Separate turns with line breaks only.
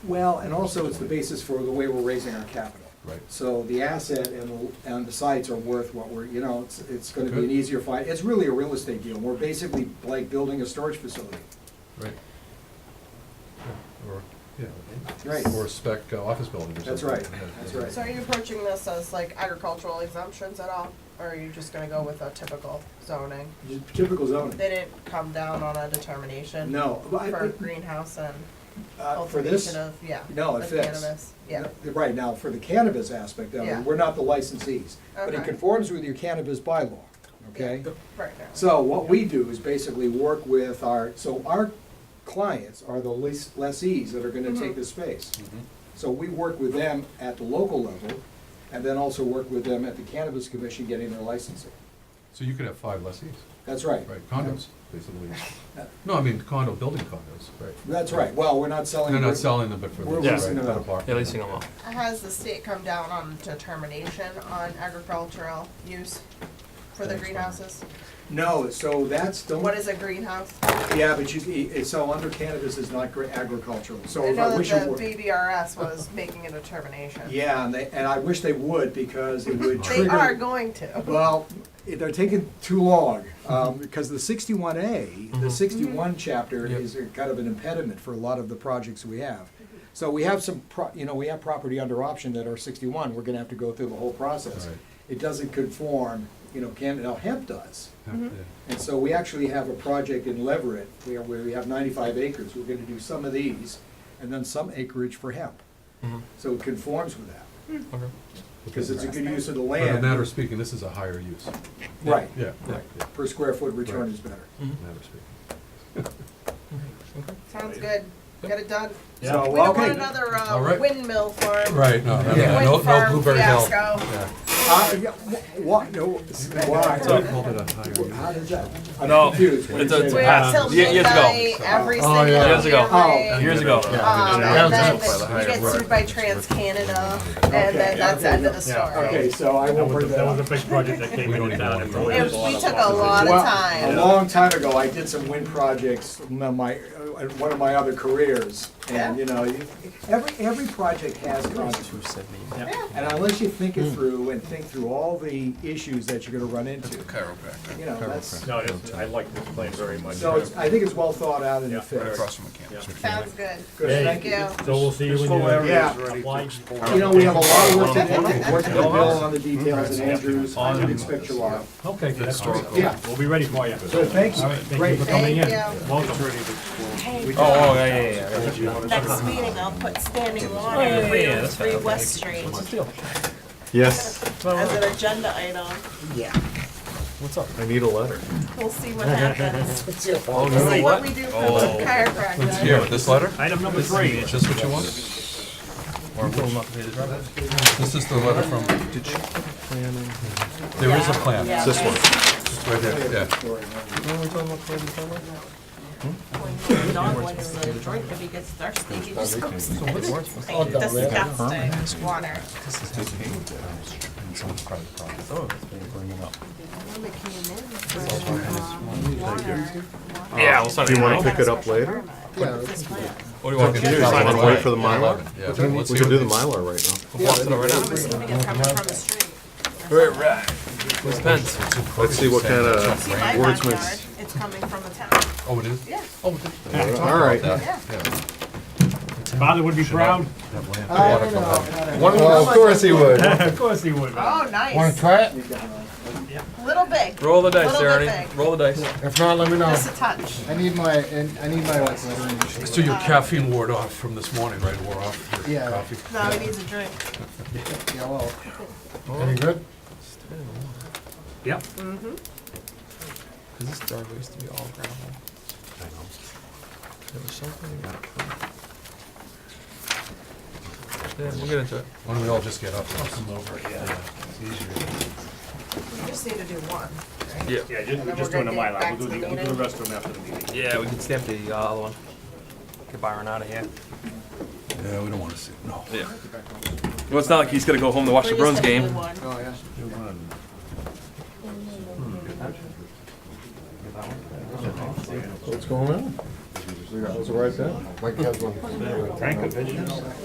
Well, and also it's the basis for the way we're raising our capital.
Right.
So the asset and, the- and the sites are worth what we're, you know, it's, it's gonna be an
Good.
easier fight. It's really a real estate deal. We're basically like building a storage facility.
Right. Or, yeah.
Right.
Or a spec uh, office building or something.
That's right,
Yeah,
that's
yeah.
right.
So are you approaching this as like agricultural exemptions at all, or are you just gonna go with a typical zoning?
Typical zoning.
They didn't come down on a determination?
No. but I-
For greenhouse and
uh, For this?
cultivation of, yeah.
No, it
the
fits.
Cannabis, yeah.
Right, now, for the cannabis aspect of
Yeah.
it, we're not the licensees. But it
Okay.
conforms with your cannabis bylaw, okay?
Right now.
So what we do is basically work with our, so our clients are the lease- lessees that are gonna take
Mhm.
the space. So we work with them at the local level, and then also work with them at the Cannabis Commission getting their licensing.
So you could have five lessees,
That's right.
right, condos, basically. No, I mean condo, building condos, right.
That's right, well, we're not selling.
They're not selling them, but for.
We're
the-
leasing
right,
them
for the
out.
park.
They're leasing them out.
Has the state come down on determination on agricultural use for the
Thanks, Brian.
greenhouses?
No, so that's, don't.
What is a greenhouse?
Yeah, but you, it- so under cannabis is not gra- agricultural, so
I
if I
know that
wish
the
it were.
BBRS was making a determination.
Yeah, and they, and I wish they would, because it would trigger.
They are going to.
Well, it- they're taking too long, um, because the sixty-one A, the
Mhm.
sixty-one chapter
Yep.
is a kind of an impediment for a lot of the projects we have. So we have some, pro- you know, we have property under option that are sixty-one, we're gonna have to go through the whole process.
Right.
It doesn't conform, you know, Canada, now hemp does.
Yeah, yeah.
And so we actually have a project in Leverett where, where we have ninety-five acres. We're gonna do some of these and then some acreage for hemp.
Mhm.
So it conforms with that,
Okay.
because it's a good use of the
But in a
land.
matter of speaking, this is a higher use.
Right,
Yeah, yeah,
Right.
yeah,
per square foot return
Right.
is better.
in a matter of speaking.
Sounds good. Get it done.
So,
We don't want
okay.
another
All
uh,
right.
windmill farm.
Right, no, no,
Yeah.
no,
Wind
no
farm
Blueberry Hill.
fiasco.
Yeah.
Uh, yeah, wh- Why, no,
They
why?
called it a higher use.
How does that? I'm
No,
confused when you
it's a-
say
it's
We're
that.
up till
Ye- years ago.
midnight every
Oh,
single
yeah.
Years ago.
year.
Oh.
Years ago.
Um,
Yeah.
and then
Yeah.
the- you get sued by Trans Canada, and
Okay.
then that's the end of the
Yeah.
story.
Okay, so I will
That was,
bring
a- that
that
was a
up.
big project that came
We don't
into
even
town.
want
and
to
really
It
was a lot
we
of
took a
fun.
lot of
Well,
time.
A long time ago, I did some wind projects, in my, in one of my other careers, and, you know, you- every, every project has consequences. And unless you think it through and think through all the issues that you're gonna run into, you know, that's,
No, it's, I like this plan very much.
so it's, I think it's well thought out and
Yeah.
it fits.
from a camp.
Yeah.
Sounds good.
Good,
Hey.
thank you.
Yeah.
So we'll see you when you.
Yeah.
Apply.
You know, we have a lot of work to do, work with Bill on the details and Andrews, I would expect you are.
Okay, that's great.
Yeah,
We'll be ready for you.
so thanks,
All right, thank
great.
you for coming in.
Thank you.
Welcome.
Hey, uh,
Oh, yeah, yeah, yeah.
next meeting, I'll put standing water at three oh three West Street
Yes,
as an agenda item.
I need a letter.
We'll see what happens.
We'll see what we do for the chiropractor.
Here, with this letter?
Item number three.
Is this what you want? Or which- This is the letter from. There is a plan,
Yeah,
it's
This one.
right there, yeah.
when the Dog wants a drink, if he gets thirsty, he just goes there.
Oh,
Like, Disgusting water.
Oh, Yeah, we'll sign
Do you want to pick it up later?
What do you want? me to do?
you
Sign
wanna
it
wait for the
right?
Mylar?
Yeah, let's
We
see
can do
what
the
these-
Mylar right now.
We'll walk through it right now.
Right, right.
Where's Penn's?
Let's see what kind of,
See my
Wordsmiths.
backyard, it's coming from the town.
Oh, it is?
Yeah.
Oh, it is.
all right.
Yeah.
Father would be proud.
That land.
I don't know.
Of course he would.
Of course he would.
Oh, nice. Wanna try it? Little big,
Roll the dice,
Little bit
Ernie,
big.
roll the dice.
just a touch.
I need my, and I need my like lettering.
So your caffeine wore off from this morning, right, wore off your
Yeah.
coffee?
Now he needs a drink.
Yeah, well,
Any good?
Yep.
Cause this driveway used to be all gravel. There was something. Yeah, we'll get into it.
Why don't we all just get up? Come over,
We just need to do one.
Yeah, just,
And then
we're just
we're
doing the
gonna get
Mylar.
back
We'll
to
do
the
the, we'll do the
meeting.
rest of them after the meeting.
Yeah, we can stamp the uh, other one. Get Byron out of here.
Yeah, we don't wanna see, no.
Yeah. Well, it's not like he's gonna go home to watch the
We're
Bruins
just gonna
game.
do one.
Oh, yeah.
What's going on? Those are right there.
Mike has one.
Tank of vision.